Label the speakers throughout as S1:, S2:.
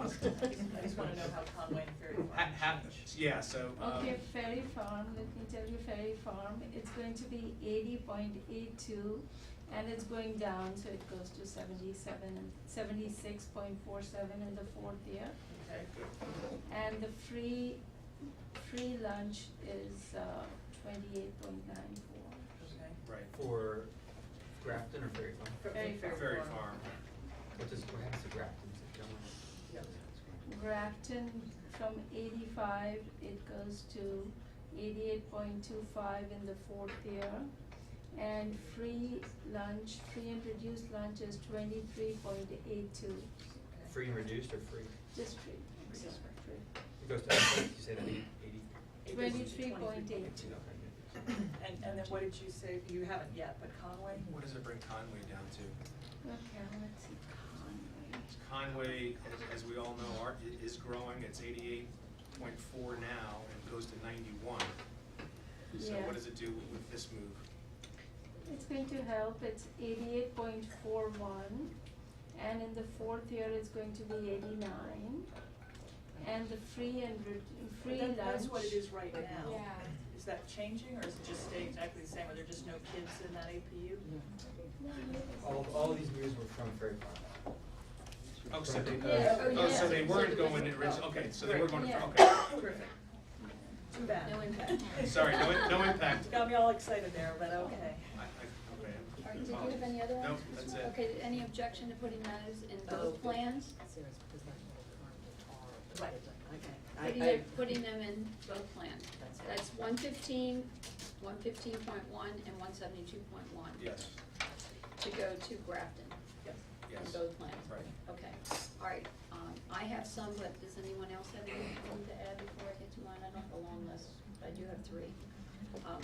S1: I just wanna know how Conway and Ferry
S2: Ha-
S1: Farm
S2: ha-
S1: changed.
S2: yeah, so, um,
S3: Okay, Ferry Farm, let me tell you Ferry Farm, it's going to be eighty point eight two and it's going down, so it goes to seventy-seven and seventy-six point four seven in the fourth year.
S1: Okay, good.
S3: And the free, free lunch is uh twenty-eight point nine four.
S1: Okay.
S2: right,
S4: For Grafton or Ferry Farm?
S1: For-
S3: Ferry
S1: for
S2: Ferry Farm,
S4: What does, what happens to Grafton? Is it going?
S1: Yep.
S3: Grafton from eighty-five, it goes to eighty-eight point two five in the fourth year. And free lunch, free and reduced lunch is twenty-three point eight two,
S1: Okay.
S4: Free and reduced or free?
S3: just free, I'm
S1: Just
S3: sorry, free.
S4: It goes to, you said eighty, eighty?
S1: It goes to
S3: Twenty-three point eight two.
S4: Okay.
S1: And, and then what did you say, you haven't yet, but Conway?
S2: what does it bring Conway down to?
S3: Okay, let's see, Conway.
S2: Conway, as, as we all know, are, i- is growing, it's eighty-eight point four now, and goes to ninety-one. So
S3: Yeah.
S2: what does it do with this move?
S3: It's going to help, it's eighty-eight point four one, and in the fourth year, it's going to be eighty-nine. And the free and re- free
S1: That-
S3: lunch.
S1: That's what it is right now.
S3: Yeah.
S1: Is that changing, or is it just staying exactly the same, are there just no kids in that APU?
S4: All, all of these moves were from Ferry Farm.
S2: Oh, so they,
S3: Yeah, oh,
S2: oh, so
S3: yeah.
S2: they weren't going to,
S1: Oh,
S2: okay, so they were
S1: great.
S2: going to,
S3: Yeah.
S2: okay.
S1: Terrific. Too bad.
S3: No impact.
S2: Sorry, no, i- no impact.
S1: Got me all excited there, but okay.
S2: I, I, okay.
S5: All right, did you have any other ones?
S2: Nope, that's it.
S5: Okay, any objection to putting those in both plans?
S1: Right.
S5: Putting them, putting them in both plans? That's one fifteen, one fifteen point one, and one seventy-two point one?
S2: Yes,
S5: To go to Grafton?
S1: Yes.
S2: yes.
S5: In both plans?
S2: Right.
S5: Okay, all right, um, I have some, but does anyone else have anything to add before I get to mine? I don't have a long list, but I do have three. Um,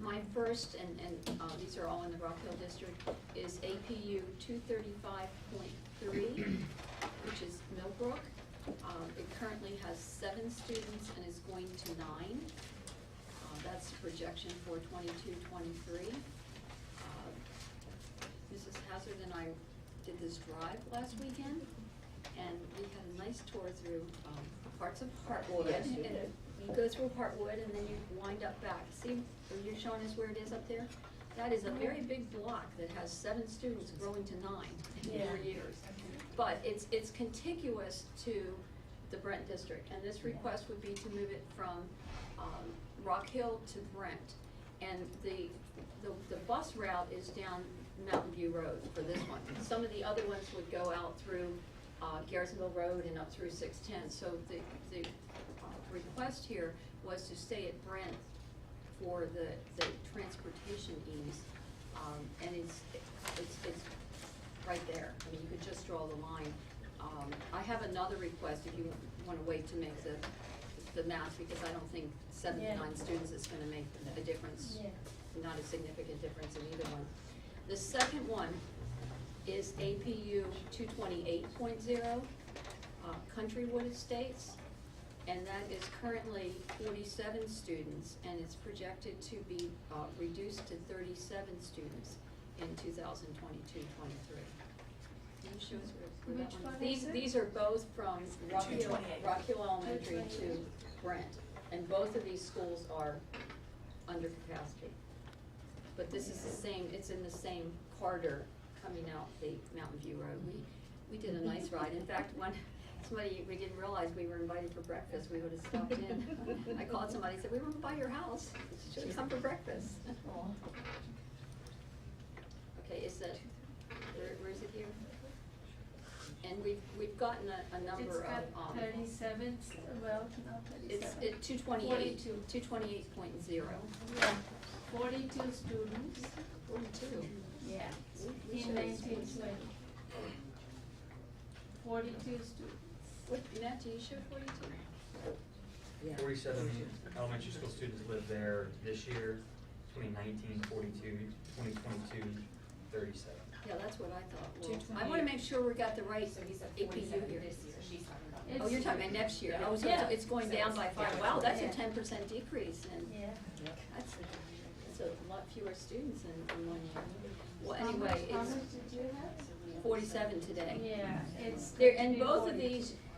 S5: My first, and, and, uh, these are all in the Rock Hill District, is APU two thirty-five point three, which is Millbrook. Um, it currently has seven students and is going to nine. Uh, that's the projection for twenty-two, twenty-three. Uh, Mrs. Hazard and I did this drive last weekend, and we had a nice tour through, um, parts of Hartwood.
S6: Yes, we
S5: and
S6: did.
S5: You go through Hartwood and then you wind up back, see, are you showing us where it is up there? That is a very big block that has seven students growing to nine in four
S3: Yeah.
S5: years. But it's, it's contiguous to the Brent district, and this request would be to move it from, um, Rock Hill to Brent. And the, the, the bus route is down Mountain View Road for this one. Some of the other ones would go out through, uh, Garrisonville Road and up through six-ten. So the, the uh, request here was to stay at Brent for the, the transportation ease. Um, and it's, it's, it's right there. I mean, you could just draw the line. Um, I have another request if you wanna wait to make the, the math, because I don't think seven to
S3: Yeah.
S5: nine students is gonna make a difference.
S3: Yeah.
S5: Not a significant difference in either one. The second one is APU two twenty-eight point zero, uh, Countrywood Estates. And that is currently forty-seven students, and it's projected to be, uh, reduced to thirty-seven students in 2022-23. Can you show us where, where that
S3: Which
S5: one?
S3: one
S5: These,
S3: is it?
S5: these are both from Rock Hill,
S1: 228.
S5: Rock Hill Elementary
S3: 228.
S5: to Brent, and both of these schools are under capacity. But this is the same, it's in the same corridor coming out the Mountain View Road. We, we did a nice ride. In fact, one, somebody, we didn't realize we were invited for breakfast. We would have stopped in. I called somebody, said, we were by your house. Should have come for breakfast. Okay, is that, where, where is it here? And we've, we've gotten a, a number of, um.
S3: It's got thirty-seven, well, not
S5: It's
S3: thirty-seven.
S5: at two twenty-eight,
S3: Forty-two.
S5: two twenty-eight point zero.
S3: Yeah, forty-two students,
S5: Forty-two.
S3: yeah,
S5: We- we
S3: in
S5: should-
S3: nineteen twenty. Forty-two students.
S5: What, Matt, do you show forty-two?
S4: Forty-seven elementary school students live there this year, 2019, 42, 2022, 37.
S5: Yeah, that's what I thought.
S7: Two
S5: I wanna
S7: twenty-eight.
S5: make sure we got the right
S7: So he's at
S5: APU
S7: forty-seven
S5: here.
S7: this year, she's talking about.
S3: It's-
S5: Oh, you're talking about next year. Oh, so it's,
S3: Yeah.
S5: it's going down by five.
S7: Yeah.
S5: Wow, that's a
S3: Yeah.
S5: ten percent decrease and
S3: Yeah.
S5: that's, that's a lot fewer students in, in one year. Well,
S3: How much-
S5: anyway,
S3: How much
S5: it's
S3: did you have?
S5: forty-seven today.
S3: Yeah, it's.
S5: There, and
S3: between
S5: both of
S3: 40.
S5: these